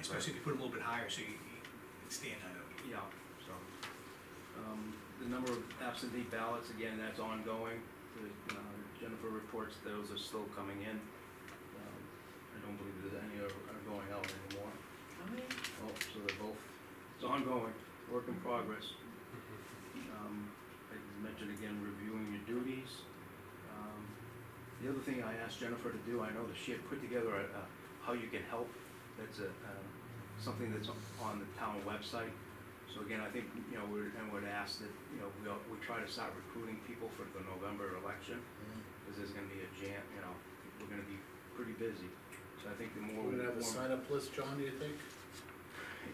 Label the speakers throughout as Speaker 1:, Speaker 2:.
Speaker 1: especially if you put them a little bit higher, so you you stand out.
Speaker 2: Yeah, so, um, the number of absentee ballots, again, that's ongoing. The, uh, Jennifer reports those are still coming in. Um, I don't believe there's any are are going out anymore. Oh, so they're both, it's ongoing, work in progress. Um, I mentioned again, reviewing your duties. Um, The other thing I asked Jennifer to do, I know that she had put together a, a how you can help, that's a, um, something that's on the town website. So again, I think, you know, we're, and would ask that, you know, we, all- we try to start recruiting people for the November election, because there's gonna be a jam, you know, we're gonna be pretty busy. So I think the more.
Speaker 3: We're gonna have
Speaker 2: more-
Speaker 3: a sign-up list, John, do you think?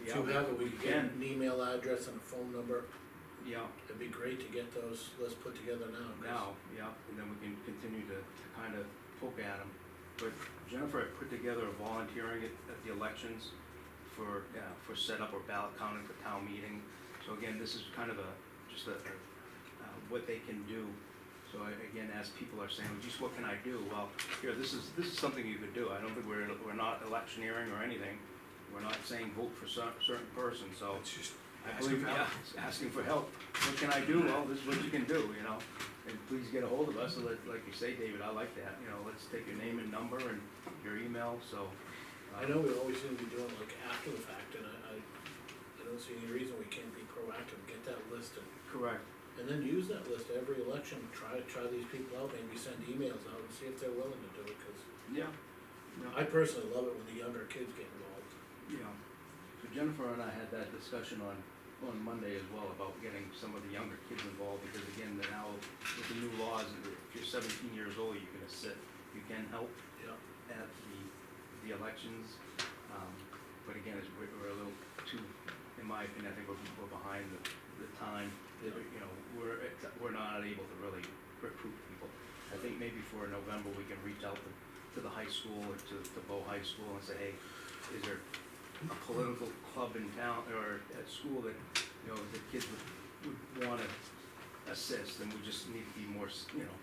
Speaker 3: If
Speaker 2: Yeah,
Speaker 3: you have it, we can get
Speaker 2: can.
Speaker 3: an email address and a phone number,
Speaker 2: Yeah,
Speaker 3: it'd be great to get those lists put together now. 'cause-
Speaker 2: now, yeah, and then we can continue to kind of poke at them. But Jennifer had put together a volunteering at, at the elections for, yeah, for setup or ballot counting for town meeting. So again, this is kind of a, just a, uh, what they can do. So I- again, as people are saying, geez, what can I do? Well, here, this is, this is something you could do. I don't think we're, we're not electioneering or anything. We're not saying vote for cer- certain person, so.
Speaker 1: It's just
Speaker 2: I
Speaker 1: asking
Speaker 2: believe,
Speaker 1: for
Speaker 2: yeah,
Speaker 1: help.
Speaker 2: it's asking for help. What can I do? Well, this is what you can do, you know? And please get a hold of us, and let- like you say, David, I like that, you know, let's take your name and number and your email, so. uh,
Speaker 3: I know we always seem to be doing like after the fact, and I, I, I don't see any reason we can't be proactive, get that list and,
Speaker 2: Correct,
Speaker 3: and then use that list every election, try, try these people out, maybe send emails out and see if they're willing to do it, cause
Speaker 2: yeah, yeah,
Speaker 3: I personally love it when the younger kids get involved.
Speaker 2: yeah. So Jennifer and I had that discussion on, on Monday as well about getting some of the younger kids involved, because again, they're now, with the new laws, if you're seventeen years old, you can assist, you can help.
Speaker 3: Yeah.
Speaker 2: at the, the elections. Um, But again, it's, we're, we're a little too, in my opinion, I think we're, we're behind the, the time. that we- You know, we're, we're not able to really recruit people. I think maybe for November, we can reach out to, to the high school or to, to Bow High School and say, hey, is there a political club in town or at school that, you know, the kids would, would wanna assist? And we just need to be more, s- you know,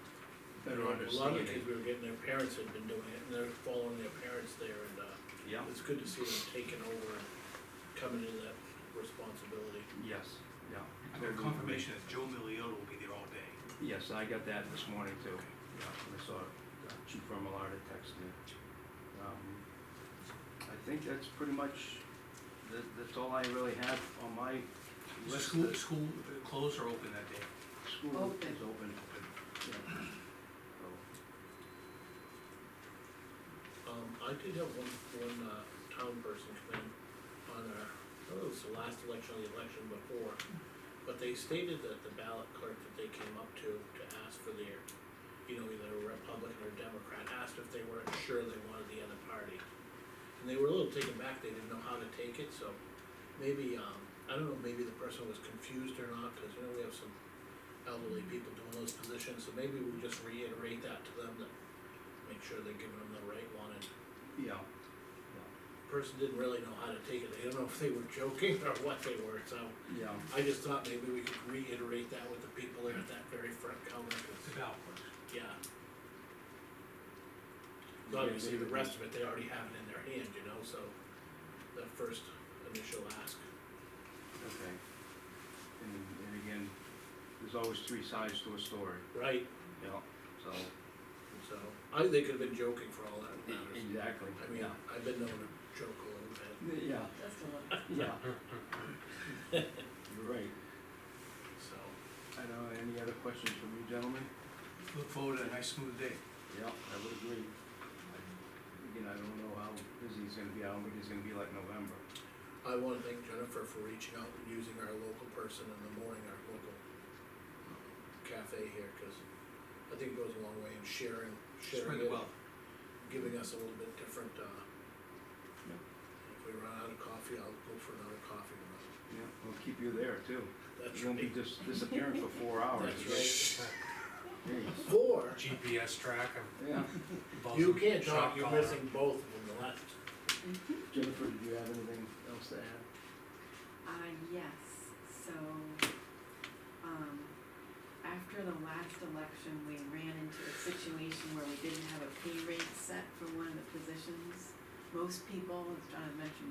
Speaker 2: better
Speaker 3: A lot of the
Speaker 2: understanding.
Speaker 3: kids we were getting, their parents had been doing it, and they're following their parents there, and, uh,
Speaker 2: Yeah.
Speaker 3: it's good to see them taking over and coming into that responsibility.
Speaker 2: Yes, yeah.
Speaker 1: I got confirmation that Joe Milliotto will be there all day.
Speaker 2: Yes, I got that this morning too. Yeah, I saw uh, Chief Remillard text me. Um, I think that's pretty much, that, that's all I really have on my
Speaker 1: Is the
Speaker 2: list.
Speaker 1: school, school uh, closed or open that day?
Speaker 2: School
Speaker 4: Open.
Speaker 2: is open. yeah. So,
Speaker 3: Um, I did have one, one, uh, town person come in on our, oh, it was the last election, or the election before, but they stated that the ballot clerk that they came up to, to ask for their, you know, either Republican or Democrat, asked if they weren't sure they wanted the other party. And they were a little taken back, they didn't know how to take it, so maybe, um, I don't know, maybe the person was confused or not, cause you know, we have some elderly people doing those positions, so maybe we just reiterate that to them, that make sure they're giving them the right one, and
Speaker 2: Yeah,
Speaker 3: person didn't really know how to take it, they don't know if they were joking or what they were, so.
Speaker 2: yeah,
Speaker 3: I just thought maybe we could reiterate that with the people there at that very front counter,
Speaker 1: It's
Speaker 3: 'cause,
Speaker 1: about, work.
Speaker 3: yeah. Obviously, the rest of it, they already have it in their hand, you know, so, the first initial ask,
Speaker 2: okay. And, and again, there's always three sides to a story,
Speaker 3: right,
Speaker 2: yeah, so.
Speaker 3: so, I, they could've been joking for all that matters.
Speaker 2: Exactly.
Speaker 3: I mean, I've been known to joke a little bit,
Speaker 2: Yeah,
Speaker 4: That's the one.
Speaker 2: yeah. You're right.
Speaker 3: so,
Speaker 2: I don't know, any other questions from you gentlemen?
Speaker 1: look forward to a nice smooth day.
Speaker 2: Yeah, I would agree. I- Again, I don't know how busy he's gonna be, I don't think it's gonna be like November.
Speaker 3: I wanna thank Jennifer for reaching out and using our local person in the morning, our local um, cafe here, cause I think it goes a long way in sharing,
Speaker 1: Spread
Speaker 3: sharing
Speaker 1: the
Speaker 3: it,
Speaker 1: wealth.
Speaker 3: giving us a little bit different, uh.
Speaker 2: Yeah.
Speaker 3: If we run out of coffee, I'll go for another coffee, tomorrow.
Speaker 2: Yeah, we'll keep you there too.
Speaker 3: that's
Speaker 2: You won't be
Speaker 3: right,
Speaker 2: just disappearing for four hours.
Speaker 3: that's
Speaker 2: Jeez.
Speaker 3: right. Four,
Speaker 5: GPS track
Speaker 2: Yeah.
Speaker 5: of.
Speaker 3: you can't talk,
Speaker 5: Shot
Speaker 3: you're
Speaker 5: collar.
Speaker 3: missing both of them left,
Speaker 2: Jennifer, did you have anything else to add?
Speaker 4: Uh, yes, so, um, after the last election, we ran into a situation where we didn't have a pay rate set for one of the positions. Most people, as John had mentioned